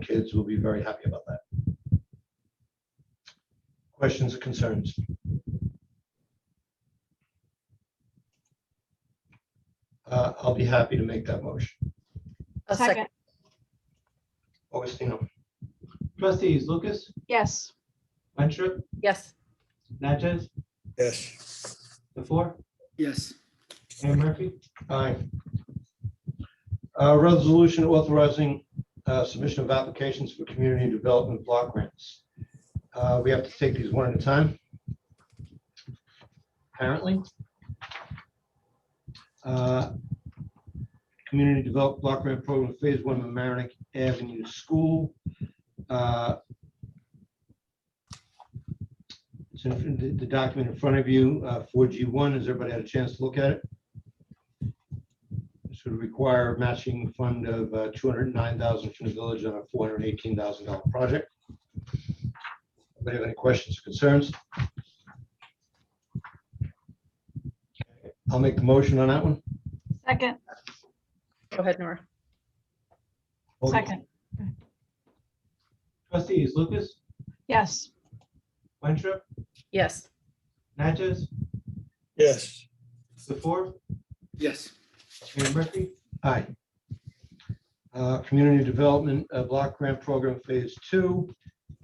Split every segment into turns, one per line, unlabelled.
kids will be very happy about that. Questions, concerns? Uh, I'll be happy to make that motion.
A second.
Augustino. Trustees Lucas,
Yes.
Winthrop,
Yes.
Natchez,
Yes.
the four,
Yes,
Mayor Murphy? Aye. Uh, Resolution authorizing uh, submission of applications for community development block grants. Uh, We have to take these one at a time. Apparently. Uh, Community Develop Block Grant Program Phase One, Mamaroneck Avenue School. Uh, It's in the the document in front of you, uh, 4G1. Has everybody had a chance to look at it? This would require a matching fund of uh, $209,000 from the village on a $418,000 project. Anybody have any questions, or concerns? I'll make the motion on that one.
Second,
Go ahead, Nora.
Oh,
second,
Trustees Lucas,
yes,
Winthrop,
Yes.
Natchez,
Yes.
the four,
yes,
Mayor Murphy? Aye. Uh, Community Development uh, Block Grant Program Phase Two.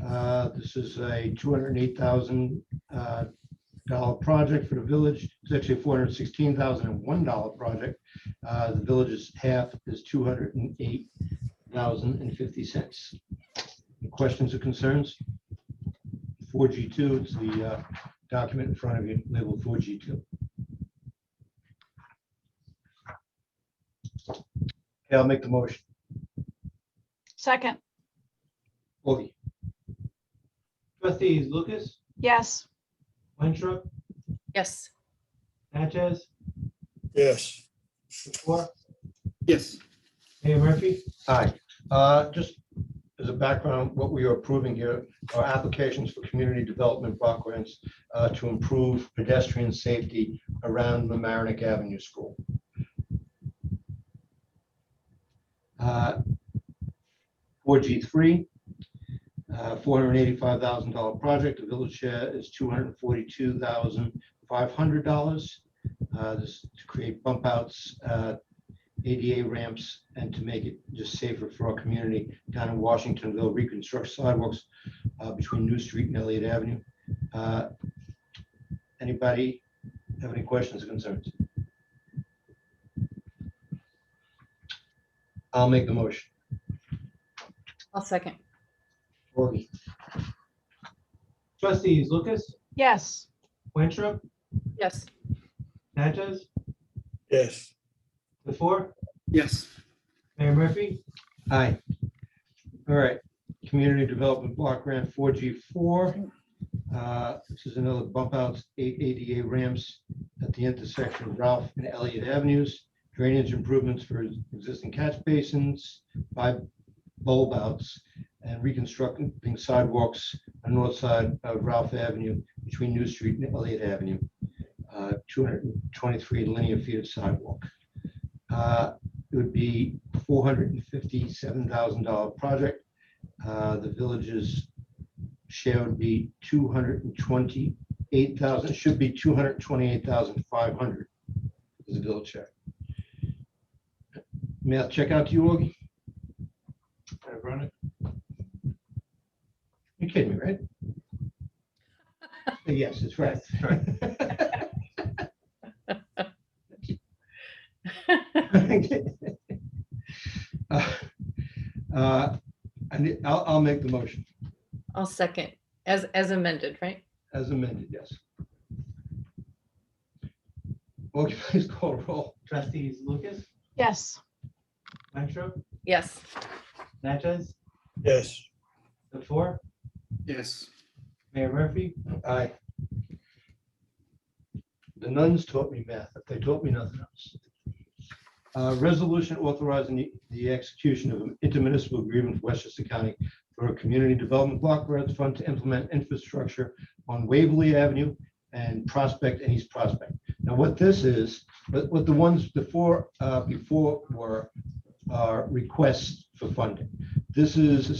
Uh, This is a two hundred and eight thousand uh, dollar project for the village. It's actually a four hundred and sixteen thousand and one dollar project. Uh, The village's half is two hundred and eight thousand and fifty cents. Questions or concerns? Four G two, it's the uh, document in front of you labeled four G two. Okay, I'll make the motion.
second,
Augie.
Trustees Lucas,
yes,
Winthrop,
Yes.
Natchez,
Yes.
Sephora,
yes,
Mayor Murphy?
Hi, uh, just as a background, what we are approving here are applications for community development block grants uh, to improve pedestrian safety around Mamaroneck Avenue School. Uh, Four G three, uh, four hundred and eighty-five thousand dollar project, the village share is two hundred and forty-two thousand five hundred dollars. Uh, This is to create bump outs uh, ADA ramps and to make it just safer for our community down in Washingtonville, reconstruct sidewalks uh, between New Street and Elliott Avenue. Uh, Anybody have any questions or concerns? I'll make the motion.
I'll second.
Augie.
Trustees Lucas,
yes,
Winthrop,
Yes.
Natchez,
Yes.
Sephora,
yes,
Mayor Murphy?
Aye. All right, Community Development Block Grant four G four. Uh, This is another bump out, eight ADA ramps at the intersection of Ralph and Elliott Avenues, drainage improvements for existing catch basins, five bulb outs, and reconstructing sidewalks on north side of Ralph Avenue between New Street and Elliott Avenue. Uh, Two hundred and twenty-three linear feet of sidewalk. Uh, It would be four hundred and fifty-seven thousand dollar project. Uh, The village's share would be two hundred and twenty-eight thousand, should be two hundred and twenty-eight thousand five hundred is the village share. Math check out to you, Augie? You're kidding me, right? Yes, it's right. Uh, uh, I need- I'll, I'll make the motion
I'll second. As, as amended, right?
as amended, yes. Okay, please call roll.
Trustees Lucas,
yes,
Winthrop,
Yes.
Natchez,
Yes.
Sephora,
yes,
Mayor Murphy?
Aye. The nuns taught me math, but they taught me nothing else. Uh, Resolution authorizing the- the execution of an intermunicipal agreement with Westchester County for a community development block grant fund to implement infrastructure on Waverly Avenue and Prospect and East Prospect. Now, what this is, what what the ones before, uh, before were, are requests for funding. This is